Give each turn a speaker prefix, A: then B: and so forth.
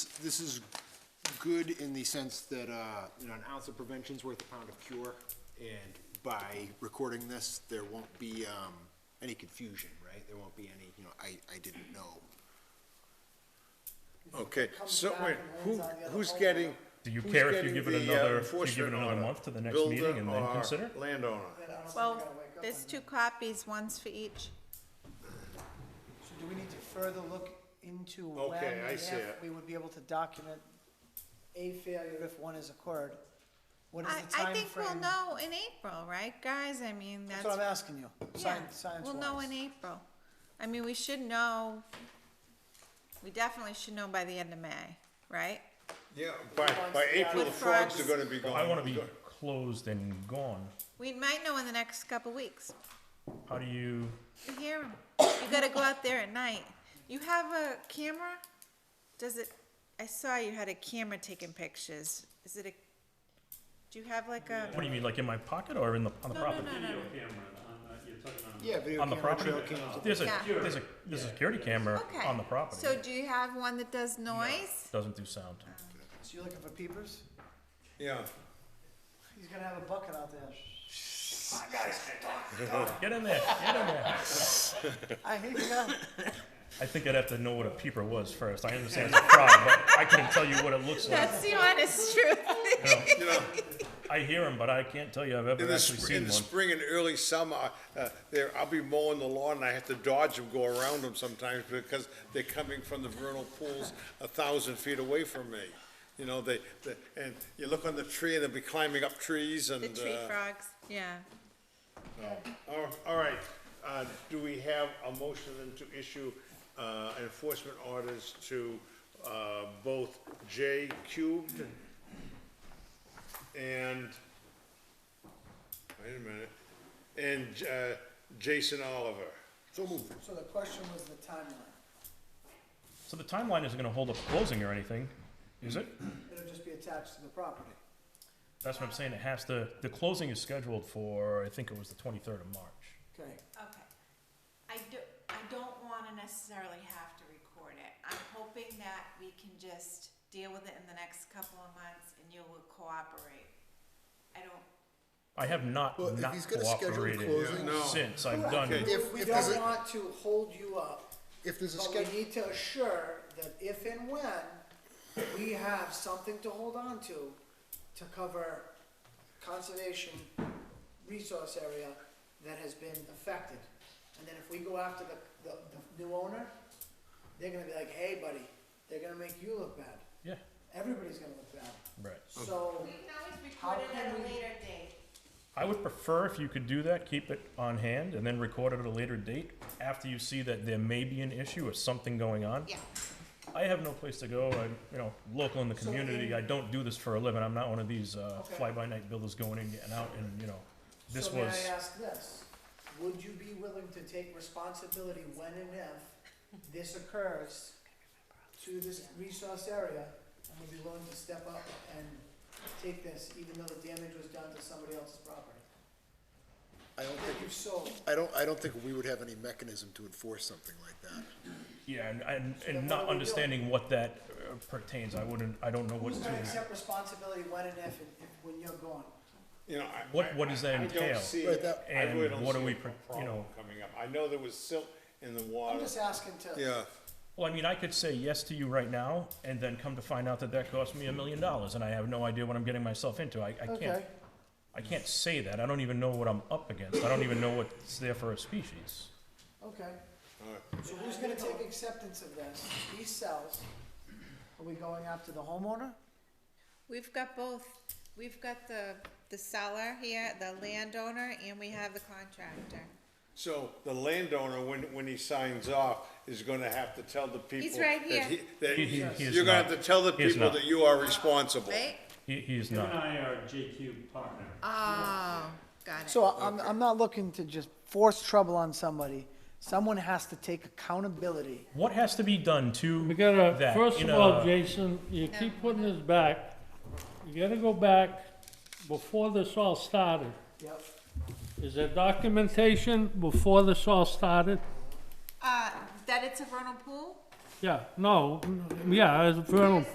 A: this is good in the sense that, uh, you know, an ounce of prevention's worth a pound of cure. And by recording this, there won't be, um, any confusion, right? There won't be any, you know, I, I didn't know.
B: Okay,
C: Comes
B: so
C: back
B: wait,
C: and
B: who,
C: lands on the other
B: who's
C: pole.
B: getting?
D: Do you
B: who's
D: care if you
B: getting
D: give it
B: the, uh,
D: another- you give it
B: enforcement
D: another
B: order?
D: month to the next
B: Builder
D: meeting and
A: uh,
D: then
B: or
D: consider?
B: Landowner.
E: Well, there's two copies, one's for each.
C: So do we need to further look into when
B: Okay, I
C: and
B: see
C: if
B: it.
C: we would be able to document a failure if one is occurred? What is
E: I,
C: the
E: I
C: timeframe?
E: think we'll know in April, right, guys? I mean, that's.
C: That's what I'm asking you,
E: yeah,
C: science, science
E: We'll know in April. I mean, we should know, we definitely should know by the end of May, right?
B: Yeah, by, by April, the
E: With
B: frogs are
E: frogs.
B: gonna be gone.
D: I wanna be closed and gone.
E: We might know in the next couple weeks.
D: How do you,
E: You hear 'em. You gotta go out there at night. You have a camera? Does it, I saw you had a camera taking pictures. Is it a, do you have like a?
D: what do you mean, like in my pocket or in the, on the
E: No, no,
D: property?
E: no, no, no.
F: camera on, uh, you're talking on.
A: Yeah, video
D: On the
A: camera,
D: property?
A: trail cams.
D: There's a,
E: Yeah.
D: there's a, there's a security camera
E: Okay.
D: on the property.
E: So do you have one that does noise?
D: Doesn't do sound.
C: So you're looking for peepers?
B: Yeah,
C: He's gonna have a bucket out there.
D: Get in there, get in there.
C: I hear you.
D: I think I'd have to know what a peeper was first. I understand it's a frog, but I couldn't tell you what it looks like.
E: That's the honest truth.
B: you know,
D: I hear them, but I can't tell you I've
B: in
D: ever
B: the,
D: actually
B: spr- in
D: seen
B: the
D: one.
B: spring and early summer, uh, there, I'll be mowing the lawn and I have to dodge them, go around them sometimes because they're coming from the vernal pools a thousand feet away from me. You know, they, they, and you look on the tree and they'll be climbing up trees and, uh.
E: The tree frogs, yeah.
B: All Oh, all right, uh, do we have a motion then to issue uh, enforcement orders to uh, both J cubed and, wait a minute, and uh, Jason Oliver?
A: So moved.
C: So the question was the timeline.
D: So the timeline isn't gonna hold up closing or anything, is it?
C: It'll just be attached to the property.
D: That's what I'm saying. It has to, the closing is scheduled for, I think it was the twenty-third of March.
C: Okay.
E: Okay. I do, I don't wanna necessarily have to record it. I'm hoping that we can just deal with it in the next couple of months and you will cooperate. I don't,
D: I have not
G: Well, if
D: not
G: he's gonna schedule
D: cooperated
G: closing-
B: Yeah, no.
D: since I've done.
B: Okay.
G: If-
C: We
G: if there's
C: don't
G: a-
C: want to hold you up,
G: If there's a
C: but we
G: schedule,
C: need to assure that if and when we have something to hold on to, to cover conservation resource area that has been affected. And then if we go after the, the, the new owner, they're gonna be like, hey buddy, they're gonna make you look bad.
D: Yeah,
C: Everybody's gonna look bad.
D: right.
C: So,
G: Mm-hmm.
E: we can always
C: How
E: record it
C: can
E: at a
C: we-
E: later date.
D: I would prefer if you could do that, keep it on hand, and then record it at a later date after you see that there may be an issue or something going on.
E: Yeah.
D: I have no place to go. I'm, you know, local in the
C: So
D: community.
C: in-
D: I don't do this for a living. I'm not one of these uh,
C: Okay.
D: fly-by-night builders going in, getting out, and you know, this
C: so may
D: was.
C: I ask this, would you be willing to take responsibility when and if this occurs to this resource area, and would be willing to step up and take this, even though the damage was done to somebody else's property?
G: I don't
C: That
G: think,
C: you sold,
G: I don't, I don't think we would have any mechanism to enforce something like that.
D: Yeah, and and, and
C: then what are we
D: not
C: doing?
D: understanding what that uh, pertains. I wouldn't. I don't know what
C: who's gonna
D: to.
C: accept responsibility when and if, and- and when you're gone?
B: You know, I-
D: What- what
B: I-
D: does that
B: I- I
D: entail?
G: Right,
B: don't
G: that-
B: see, I really
D: And
B: don't
D: what
B: see
D: are we
B: a
D: pro- you
B: problem
D: know-
B: coming up. I know there was silt in the
C: I'm
B: water.
C: just asking to.
B: Yeah,
D: Well, I mean, I could say yes to you right now, and then come to find out that that cost me a million dollars, and I have no idea what I'm getting myself into. I, I can't.
C: Okay,
D: I can't say that. I don't even know what I'm up against. I don't even know what's there for a species.
C: okay.
B: all right.
C: So who's gonna take acceptance of this? He sells, are we going after the homeowner?
E: We've got both. We've got the, the seller here, the landowner, and we have the contractor.
B: So the landowner, when, when he signs off, is gonna have to tell the people.
E: He's right
B: that
E: here.
B: he- that
D: He- he- he is
B: You're gonna
D: not.
B: have to tell the
D: He is
B: people
D: not.
B: that you are responsible.
E: Right?
D: He, he is
F: Him and
D: not.
F: I are JQ partner.
E: Oh, got it.
C: So I'm, I'm not looking to just force trouble on somebody. Someone has to take accountability.
D: What has to be done to
H: We gotta,
D: that?
H: first
D: in
H: of
D: a-
H: all, Jason, you keep putting this back. You gotta go back before this all started.
C: Yep.
H: Is there documentation before this all started?
E: Uh, that it's a vernal pool?
H: Yeah, no, yeah, it's a vernal